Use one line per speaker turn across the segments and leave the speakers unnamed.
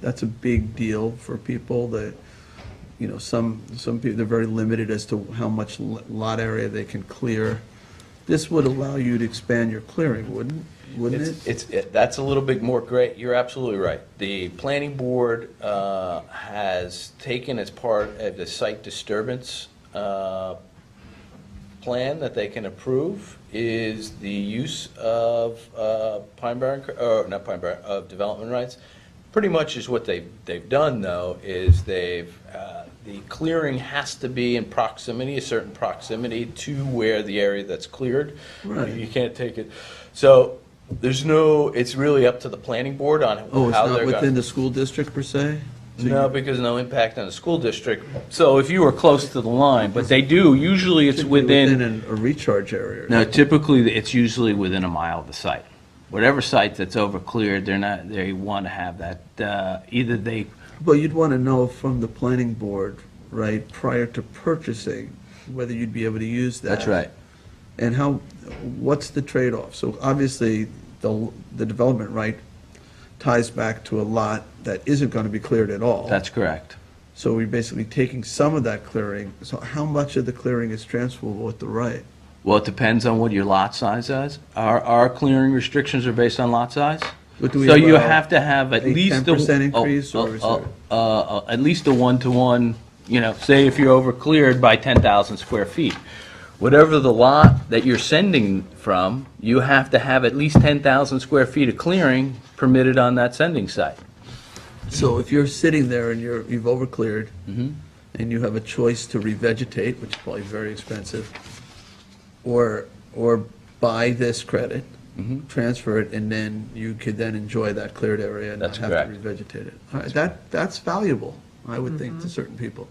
that's a big deal for people that, you know, some, some people, they're very limited as to how much l- lot area they can clear. This would allow you to expand your clearing, wouldn't, wouldn't it?
It's, it's- it- that's a little bit more great, you're absolutely right. The planning board uh, has taken as part of the site disturbance uh, plan that they can approve is the use of uh, Pine Barren, or not Pine Barren, of development rights. Pretty much is what they've, they've done, though, is they've, uh, the clearing has to be in proximity, a certain proximity to where the area that's cleared.
Right.
You can't take it, so there's no, it's really up to the planning board on
Oh, it's
how
not
they're
within
going.
the school district per se? So you-
No, because no impact on the school district. So if you were close to the line, but they do, usually it's
should be
within.
an- a recharge area.
No, typically, it's usually within a mile of the site. Whatever site that's over cleared, they're not, they want to have that, uh, either they,
But you'd want to know from the planning board, right, prior to purchasing, whether you'd be able to use that.
that's right.
And how, what's the trade-off? So obviously, the, the development right ties back to a lot that isn't going to be cleared at all.
That's correct.
So we're basically taking some of that clearing. So how much of the clearing is transferable with the right?
Well, it depends on what your lot size is. Our, our clearing restrictions are based on lot size.
But do we
So you
allow
have to have at
a
least. the-
10%
oh,
increase
oh,
or is
oh,
there-
Uh, uh, at least a one-to-one, you know, say if you're over cleared by ten thousand square feet. Whatever the lot that you're sending from, you have to have at least ten thousand square feet of clearing permitted on that sending site.
So if you're sitting there and you're, you've overcleared, and you have a choice to revegetate, which is probably very expensive, or, or buy this credit, transfer it, and then you could then enjoy that cleared area and not
That's
have to revegetate it. All right, that, that's valuable, I would think, to certain people.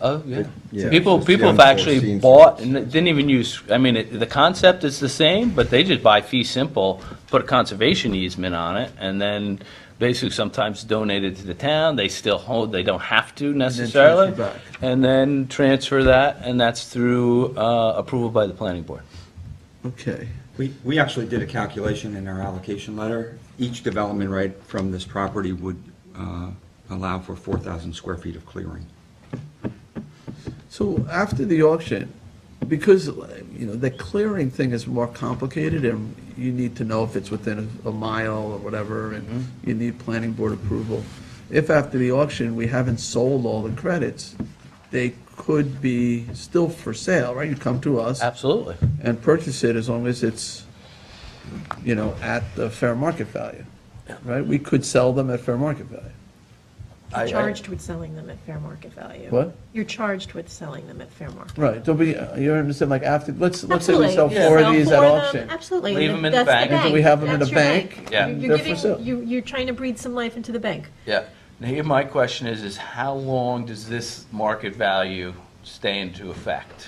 Oh, yeah.
Yeah,
People,
it's the
people have actually
unforeseen
bought and didn't even use, I mean, it- the concept is the same, but they just buy fee simple, put a conservation easement on it, and then basically sometimes donate it to the town. They still hold, they don't have to necessarily.
transfer back.
And then transfer that, and that's through uh, approval by the planning board.
Okay,
We, we actually did a calculation in our allocation letter. Each development right from this property would uh, allow for 4,000 square feet of clearing.
so after the auction, because, you know, the clearing thing is more complicated, and you need to know if it's within a a mile or whatever, and you need planning board approval. If after the auction, we haven't sold all the credits, they could be still for sale, right? You come to us.
Absolutely.
and purchase it as long as it's, you know, at the fair market value, right? We could sell them at fair market value.
I-
You're
I-
charged with selling them at fair market value.
What?
You're charged with selling them at fair market.
Right, don't be, you understand, like, after, let's, let's say we
Absolutely.
sell
You
four of
sell
these
four
at
of them,
auction.
Absolutely.
Leave 'em in the
That's
bank.
And do we have 'em in
That's
the
your
bank?
Yeah.
You're-
They're
You're
for sale.
giving, you, you're trying to breathe some life into the bank.
Yeah. Now, here my question is, is how long does this market value stay into effect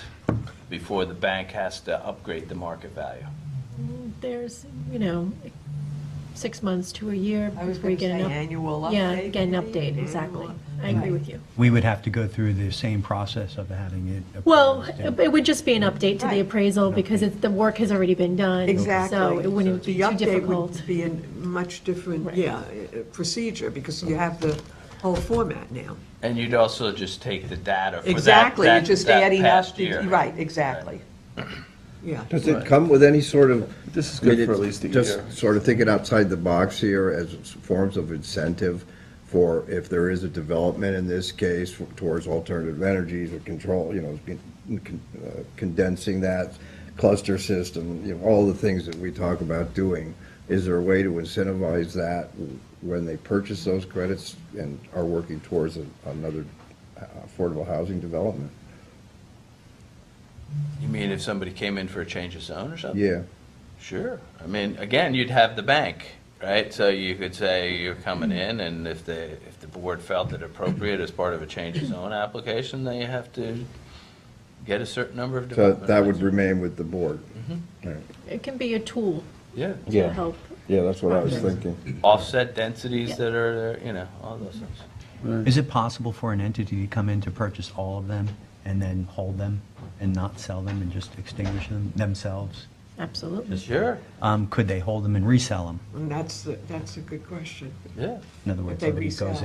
before the bank has to upgrade the market value?
There's, you know, six months to a year
I was
before you
going to
get
say
an update.
annual update. Mm-hmm.
Yeah, get an update,
Annual
exactly.
update.
I agree with you.
We would have to go through the same process of having it. approved
Well,
and-
it would just be an update to the
Right.
appraisal because it's, the work has already been done.
Exactly.
So it wouldn't be too
The update
difficult.
would be a much different,
Right.
yeah, uh, procedure, because you have the whole format now.
And you'd also just take the data for that,
Exactly, you're
that,
just
that
adding
past
up,
year.
the- right, exactly. Yeah.
Does it come with any sort of?
This is
I mean,
good for at
it's
least a year.
Just sort of thinking outside the box here as forms of incentive for if there is a development in this case towards alternative energies or control, you know, con- uh, condensing that cluster system, you know, all the things that we talk about doing. Is there a way to incentivize that when they purchase those credits and are working towards a- another uh, affordable housing development?
You mean if somebody came in for a change of zone or something?
Yeah.
Sure. I mean, again, you'd have the bank, right? So you could say you're coming in,
Mm-hmm.
and if the, if the board felt it appropriate as part of a change of zone application, then you have to get a certain number of
So
development.
that would
rights.
remain with the board.
Mm-hmm.
All right.
It can be a tool
Yeah.
to help.
Yeah, that's what I was
Projects.
thinking.
offset densities
Yeah.
that are there, you know, all those things.
Is it possible for an entity to come in to purchase all of them and then hold them and not sell them and just extinguish them themselves?
Mm-hmm.
Absolutely.
Sure,
Um, Could they hold them and resell them?
And that's, the- that's a good question.
yeah.
In other words,
they
somebody goes
resell.